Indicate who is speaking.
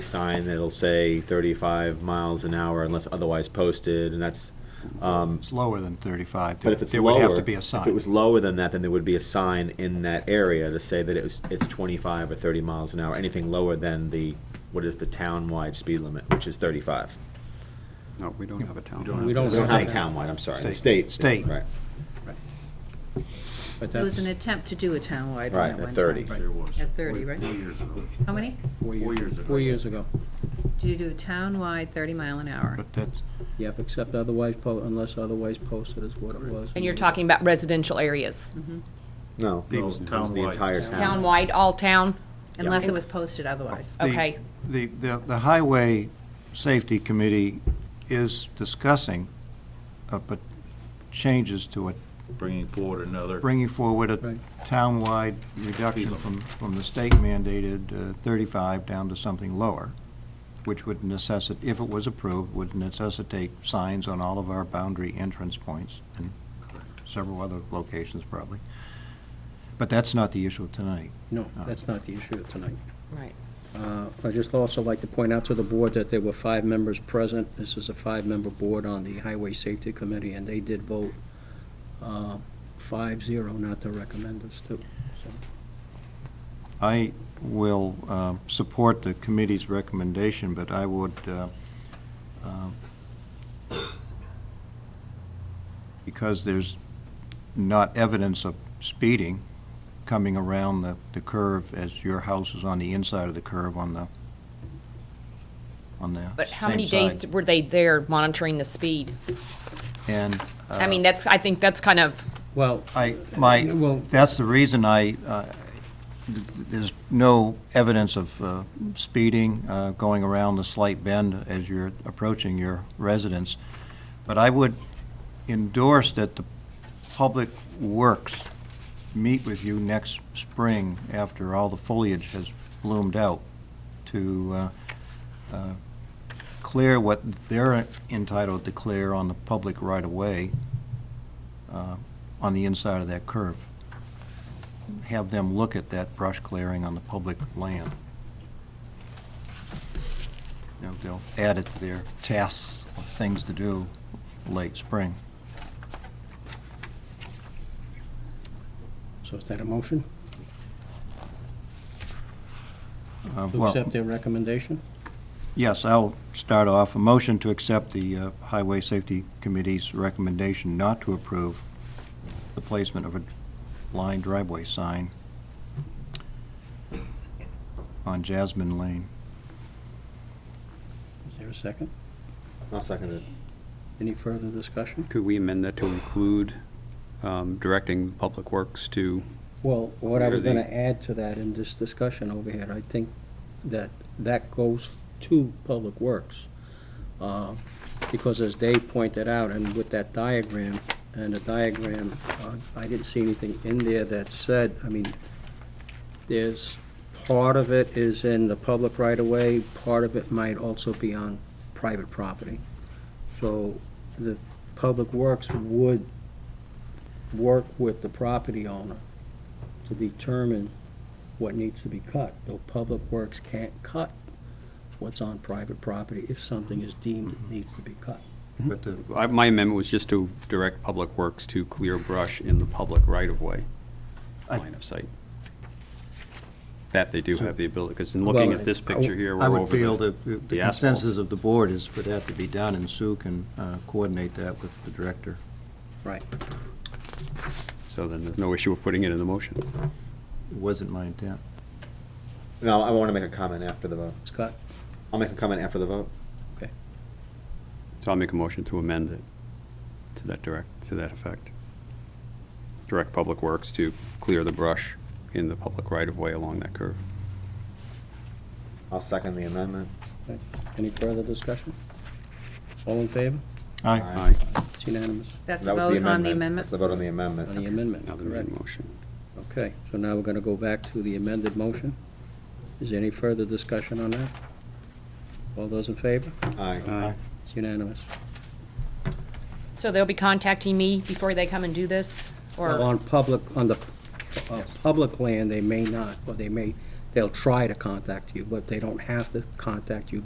Speaker 1: sign that'll say 35 miles an hour unless otherwise posted, and that's, um,
Speaker 2: It's lower than 35.
Speaker 1: but if it's
Speaker 2: There
Speaker 1: lower.
Speaker 2: would have to be a
Speaker 1: If it
Speaker 2: sign.
Speaker 1: was lower than that, then there would be a sign in that area to say that it was, it's 25 or 30 miles an hour, anything lower than the, what is the town-wide speed limit, which is 35.
Speaker 3: No, we don't have a town.
Speaker 2: We don't
Speaker 1: We don't have a
Speaker 2: State.
Speaker 1: town-wide, I'm sorry, the
Speaker 2: State.
Speaker 1: state. is-
Speaker 2: State.
Speaker 1: Right,
Speaker 4: But
Speaker 5: There was an
Speaker 4: that's
Speaker 5: attempt to do a townwide one
Speaker 1: Right,
Speaker 5: at
Speaker 1: at
Speaker 5: one time.
Speaker 1: 30.
Speaker 4: Right.
Speaker 6: There was.
Speaker 5: At 30, right?
Speaker 6: Four years ago.
Speaker 5: How many?
Speaker 4: four
Speaker 6: Four
Speaker 4: years,
Speaker 6: years
Speaker 4: ago.
Speaker 6: ago.
Speaker 4: four years ago.
Speaker 5: Do you do a townwide 30 mile an hour?
Speaker 2: But that's,
Speaker 4: Yep, except otherwise, po- unless otherwise posted is what it was.
Speaker 7: And you're talking about residential areas,
Speaker 1: no.
Speaker 2: No,
Speaker 1: it was The
Speaker 6: town-wide.
Speaker 1: entire town.
Speaker 7: townwide, all town?
Speaker 5: Unless it was posted otherwise.
Speaker 2: The-
Speaker 7: Okay.
Speaker 2: the, the the Highway Safety Committee is discussing uh, but changes to it,
Speaker 6: Bringing forward another.
Speaker 2: bringing forward a
Speaker 4: Right.
Speaker 2: townwide reduction from, from the state mandated uh, 35 down to something lower, which would necessitate, if it was approved, would necessitate signs on all of our boundary entrance points and several other locations probably. But that's not the issue tonight.
Speaker 4: No, that's not the issue tonight.
Speaker 7: Right.
Speaker 4: Uh, I'd just also like to point out to the board that there were five members present. This is a five-member board on the Highway Safety Committee, and they did vote uh, 5-0 not to recommend this to.
Speaker 2: I will uh, support the committee's recommendation, but I would, uh, um, because there's not evidence of speeding coming around the the curve as your house is on the inside of the curve on the, on the
Speaker 7: But how
Speaker 2: same
Speaker 7: many days
Speaker 2: side.
Speaker 7: were they there monitoring the speed?
Speaker 2: And
Speaker 7: I
Speaker 2: Uh,
Speaker 7: mean, that's, I think that's kind of,
Speaker 4: Well,
Speaker 2: I, my,
Speaker 4: Well-
Speaker 2: that's the reason I, uh, th- there's no evidence of uh, speeding, uh, going around the slight bend as you're approaching your residence. But I would endorse that the Public Works meet with you next spring after all the foliage has bloomed out to uh, uh, clear what they're entitled to clear on the public right-of-way uh, on the inside of that curve. Have them look at that brush clearing on the public land. You know, they'll add it to their tasks, of things to do late spring.
Speaker 4: so is that a motion
Speaker 2: Uh,
Speaker 4: to
Speaker 2: well,
Speaker 4: accept their recommendation?
Speaker 2: Yes, I'll start off. A motion to accept the uh, Highway Safety Committee's recommendation not to approve the placement of a line driveway sign on Jasmine Lane.
Speaker 4: Is there a second?
Speaker 1: I'll second it.
Speaker 4: Any further discussion?
Speaker 3: Could we amend that to include um, directing Public Works to,
Speaker 4: Well, what I was
Speaker 3: Clear
Speaker 4: gonna
Speaker 3: the-
Speaker 4: add to that in this discussion over here, I think that that goes to Public Works. uh, Because as Dave pointed out, and with that diagram, and the diagram, uh, I didn't see anything in there that said, I mean, there's, part of it is in the public right-of-way, part of it might also be on private property. So the Public Works would work with the property owner to determine what needs to be cut, though Public Works can't cut what's on private property if something is deemed it needs to be cut.
Speaker 2: But the
Speaker 3: I- my amendment was just to direct Public Works to clear brush in the public right-of-way
Speaker 2: I-
Speaker 3: line of sight. That they do have the ability, because in looking
Speaker 4: Well,
Speaker 3: at this picture here, we're
Speaker 2: I
Speaker 3: over the
Speaker 2: would feel that the- the
Speaker 3: the asphalt.
Speaker 2: consensus of the board is for that to be done, and Sue can uh, coordinate that with the director.
Speaker 4: Right.
Speaker 3: So then there's no issue with putting it in the motion.
Speaker 2: It wasn't my intent.
Speaker 1: No, I want to make a comment after the vote.
Speaker 4: Scott?
Speaker 1: I'll make a comment after the vote.
Speaker 3: So I'll make a motion to amend it to that direct, to that effect. Direct Public Works to clear the brush in the public right-of-way along that curve.
Speaker 1: I'll second the amendment.
Speaker 4: Okay. Any further discussion? All in favor?
Speaker 2: Aye.
Speaker 4: It's unanimous
Speaker 5: That's a
Speaker 1: That was the
Speaker 5: vote on the
Speaker 1: amendment. That's
Speaker 5: amendment?
Speaker 1: the vote on the amendment.
Speaker 4: on the amendment,
Speaker 3: Now the
Speaker 4: correct?
Speaker 3: main motion.
Speaker 4: Okay, so now we're gonna go back to the amended motion. Is there any further discussion on that? All those in favor?
Speaker 1: Aye.
Speaker 3: Aye.
Speaker 4: It's unanimous.
Speaker 7: so they'll be contacting me before they come and do this? Or,
Speaker 4: On public, on the, uh, public land, they may not, or they may They'll try to contact you, but they don't have to contact you